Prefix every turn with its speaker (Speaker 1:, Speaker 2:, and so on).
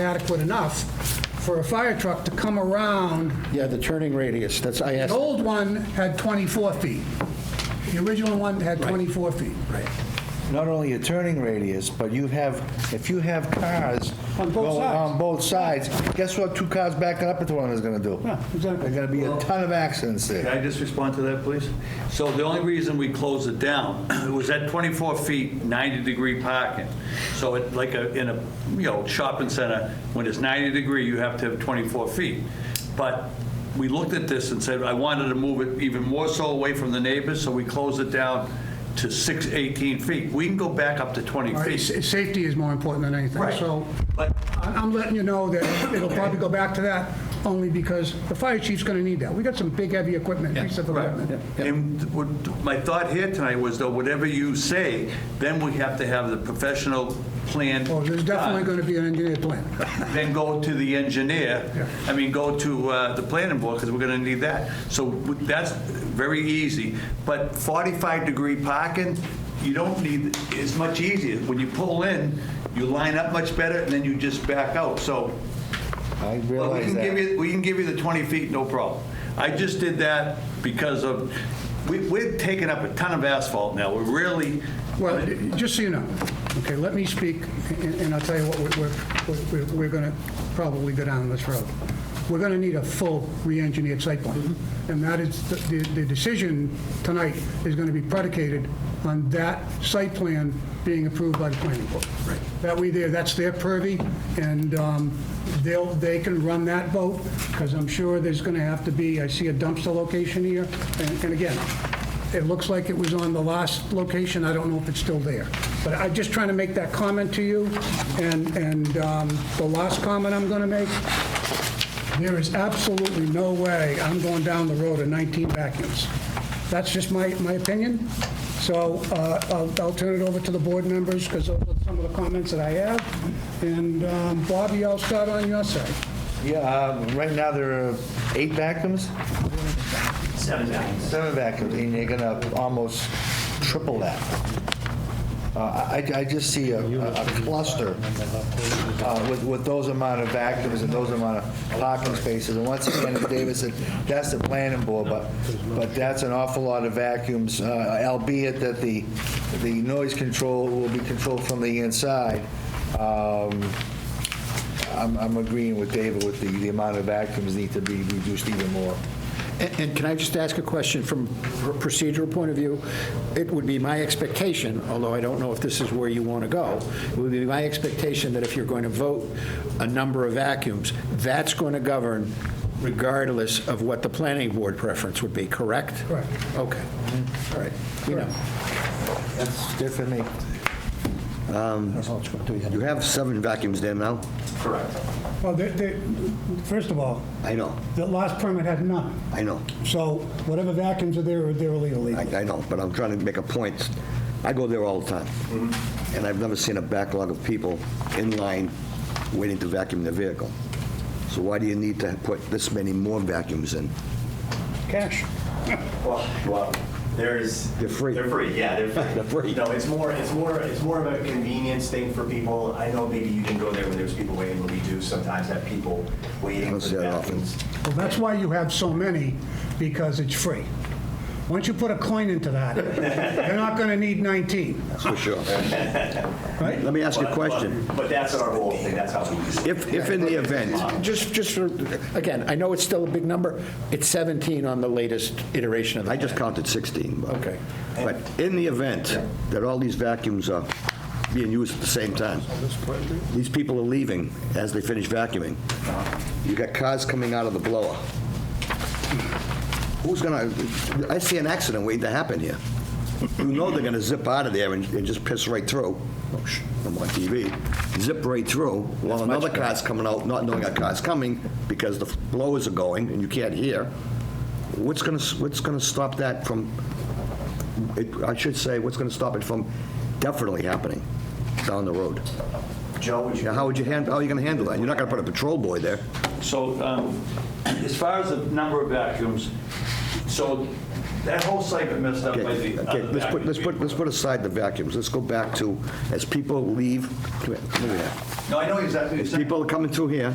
Speaker 1: adequate enough for a fire truck to come around.
Speaker 2: Yeah, the turning radius, that's, I
Speaker 1: The
Speaker 2: asked,
Speaker 1: old one had 24 feet. The original one had 24 feet. Right.
Speaker 2: not only a turning radius, but you have, if you have cars
Speaker 1: On both
Speaker 2: going
Speaker 3: uh,
Speaker 1: sides.
Speaker 2: on both sides, guess what two cars backing up into one is gonna do?
Speaker 1: Yeah, exactly.
Speaker 2: There's gonna be a ton of accidents
Speaker 3: Can
Speaker 2: there.
Speaker 3: I just respond to that, please? So the only reason we closed it down, it was at 24 feet, 90-degree parking. So it, like a, in a, you know, shopping center, when it's 90 degree, you have to have 24 feet. But we looked at this and said, I wanted to move it even more so away from the neighbors, so we closed it down to 6, 18 feet. We can go back up to 20
Speaker 1: All right,
Speaker 3: feet.
Speaker 1: sa- Safety is more important than anything.
Speaker 3: Right.
Speaker 1: So
Speaker 3: But-
Speaker 1: I- I'm letting you know that it'll probably go back to that only because the fire chief's going to need that. We got some big, heavy equipment, piece of
Speaker 3: Right.
Speaker 1: equipment.
Speaker 3: And what- my thought here tonight was though, whatever you say, then we have to have the professional plan.
Speaker 1: Oh, there's definitely
Speaker 3: done.
Speaker 1: going to be an engineer plan.
Speaker 3: then go to the engineer, I mean, go to uh, the planning board, because we're going to need that. So that's very easy, but 45-degree parking, you don't need, it's much easier. When you pull in, you line up much better, and then you just back out, so.
Speaker 2: I
Speaker 3: But we
Speaker 2: realize
Speaker 3: can give
Speaker 2: that.
Speaker 3: you, we can give you the 20 feet, no problem. I just did that because of, we- we're taking up a ton of asphalt now, we're really,
Speaker 1: Well, just so you know, okay, let me speak, and and I'll tell you what we're- we're, we're, we're going to probably go down this road. We're going to need a full re-engineered site plan, and that is, the- the, the decision tonight is going to be predicated on that site plan being approved by the planning board. Right. That we there, that's their purview, and um, they'll, they can run that vote, because I'm sure there's going to have to be, I see a dumpster location here, and and again, it looks like it was on the last location, I don't know if it's still there. But I'm just trying to make that comment to you, and, and um, the last comment I'm going to make, there is absolutely no way I'm going down the road of 19 vacuums. That's just my, my opinion, so uh, I'll, I'll turn it over to the board members, because those are some of the comments that I have. And um, Bobby, I'll start on your side.
Speaker 2: Yeah, uh, right now there are eight vacuums?
Speaker 4: Seven vacuums.
Speaker 2: Seven vacuums, and you're gonna almost triple that. Uh, I, I just see a a cluster uh, with, with those amount of vacuums and those amount of parking spaces. And once again, as David said, that's the planning board, but, but that's an awful lot of vacuums, uh, albeit that the, the noise control will be controlled from the inside. Um, I'm, I'm agreeing with David with the, the amount of vacuums need to be reduced even more.
Speaker 5: And and can I just ask a question from a procedural point of view? It would be my expectation, although I don't know if this is where you want to go, it would be my expectation that if you're going to vote a number of vacuums, that's going to govern regardless of what the planning board preference would be, correct?
Speaker 1: Correct.
Speaker 5: Okay, all right, we know.
Speaker 2: That's good for me.
Speaker 6: You have seven vacuums there now?
Speaker 1: Well, they- they, first of all,
Speaker 6: I know,
Speaker 1: the last permit had none.
Speaker 6: I know,
Speaker 1: So whatever vacuums are there, they're illegally.
Speaker 6: I I know, but I'm trying to make a point. I go there all the time, and I've never seen a backlog of people in line waiting to vacuum their vehicle. So why do you need to put this many more vacuums in?
Speaker 1: Cash.
Speaker 4: Well, well, there's.
Speaker 6: They're free.
Speaker 4: They're free, yeah, they're free.
Speaker 6: They're free.
Speaker 4: No, it's more, it's more, it's more of a convenience thing for people. I know maybe you can go there when there's people waiting, but we do sometimes have people
Speaker 6: I
Speaker 4: waiting
Speaker 6: don't
Speaker 4: for
Speaker 6: see that often.
Speaker 4: bathrooms.
Speaker 1: Well, that's why you have so many, because it's free. Once you put a coin into that, you're not going to need 19.
Speaker 6: That's for sure. Let me ask you a
Speaker 4: But-
Speaker 6: question.
Speaker 4: But but that's our whole thing, that's how we. do it.
Speaker 6: If, if in the event,
Speaker 5: Just, just, for- again, I know it's still a big number, it's 17 on the latest iteration of the
Speaker 6: I just counted 16, but.
Speaker 5: Okay.
Speaker 6: But in the event that all these vacuums are being used at the same time, these people are leaving as they finish vacuuming. You got cars coming out of the blower. Who's gonna, I see an accident waiting to happen here. You know they're gonna zip out of there and and just piss right through. Oh, sh- I'm on TV. Zip right through while another car's coming out, not knowing a car's coming because the blowers are going and you can't hear. What's gonna, s- what's gonna stop that from it- I should say, what's going to stop it from definitely happening down the road?
Speaker 4: Joe, would you?
Speaker 6: Now, how would you handle, how are you going to handle that? You're not going to put a patrol boy there.
Speaker 3: So um, as far as the number of vacuums, So that whole site got messed up by
Speaker 6: Okay,
Speaker 3: the.
Speaker 6: okay, let's put, let's put, let's put aside the vacuums. Let's go back to, as people leave, come here, come over here.
Speaker 3: No, I know exactly what you're
Speaker 6: As
Speaker 3: saying.
Speaker 6: people are coming through here,